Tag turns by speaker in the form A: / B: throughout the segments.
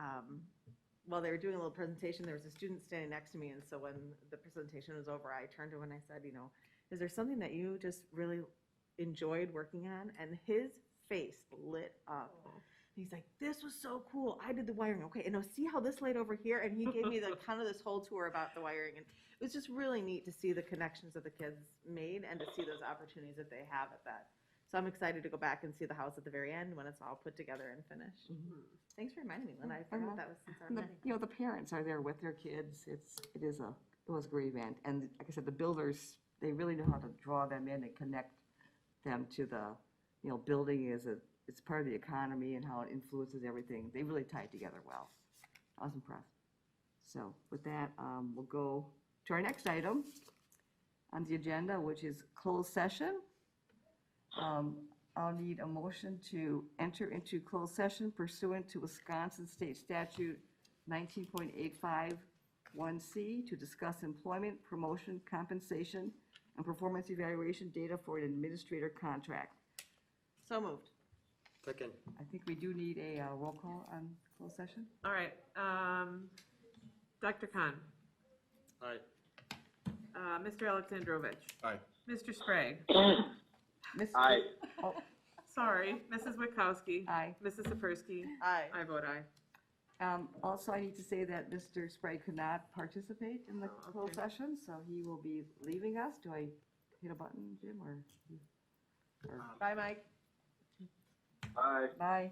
A: um, while they were doing a little presentation, there was a student standing next to me, and so when the presentation was over, I turned to him and I said, you know, is there something that you just really enjoyed working on? And his face lit up. And he's like, this was so cool. I did the wiring. Okay, and now see how this laid over here? And he gave me the kind of this whole tour about the wiring. And it was just really neat to see the connections that the kids made and to see those opportunities that they have at that. So I'm excited to go back and see the house at the very end when it's all put together and finished. Thanks for reminding me, Lynn. I forgot
B: well,
A: that was since our
B: And the,
A: meeting.
B: you know, the parents are there with their kids. It's, it is a, it was a great event. And like I said, the builders, they really know how to draw them in and connect them to the, you know, building is a, it's part of the economy and how it influences everything. They really tie it together well. I was impressed. So with that, um, we'll go to our next item on the agenda, which is closed session. Um, I'll need a motion to enter into closed session pursuant to Wisconsin State Statute 19.851C to discuss employment, promotion, compensation, and performance evaluation data for an administrator contract.
A: So moved.
C: Second.
B: I think we do need a uh, roll call on closed session.
D: All right, um, Dr. Khan,
C: Aye.
D: uh, Mr. Alexandrovich,
C: Aye.
D: Mr. Sprague,
B: Ms.
C: Aye.
D: sorry, Mrs. Witkowski.
B: Oh, Aye.
D: Mrs. Sapersky,
A: Aye.
D: I vote aye.
B: Um, Also, I need to say that Mr. Sprague could not participate in the
D: Oh,
B: closed
D: okay.
B: session, so he will be leaving us. Do I hit a button, Jim, or?
A: Bye, Mike.
C: Aye.
B: Bye.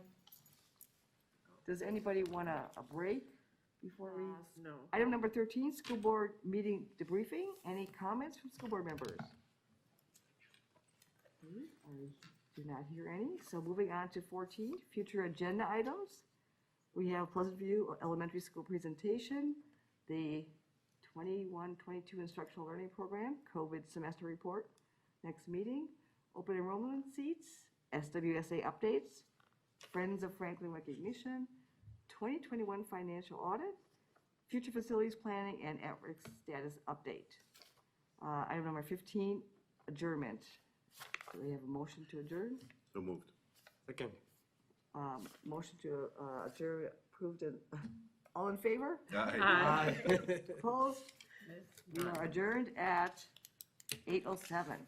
B: Does anybody want a, a break before we?
D: No.
B: Item number thirteen, school board meeting debriefing. Any comments from school board members? Okay, I do not hear any. So moving on to fourteen, future agenda items. We have Pleasant View Elementary School presentation, the 21-22 instructional learning program, COVID semester report, next meeting, open enrollment seats, SWSA updates, Friends of Franklin recognition, twenty twenty-one financial audit, future facilities planning and at-risk status update. Uh, item number fifteen, adjournment. Do we have a motion to adjourn?
C: So moved. Second.
B: Um, motion to, uh, adjourn approved and, all in favor?
D: Aye.
B: Opposed? We are adjourned at eight oh seven.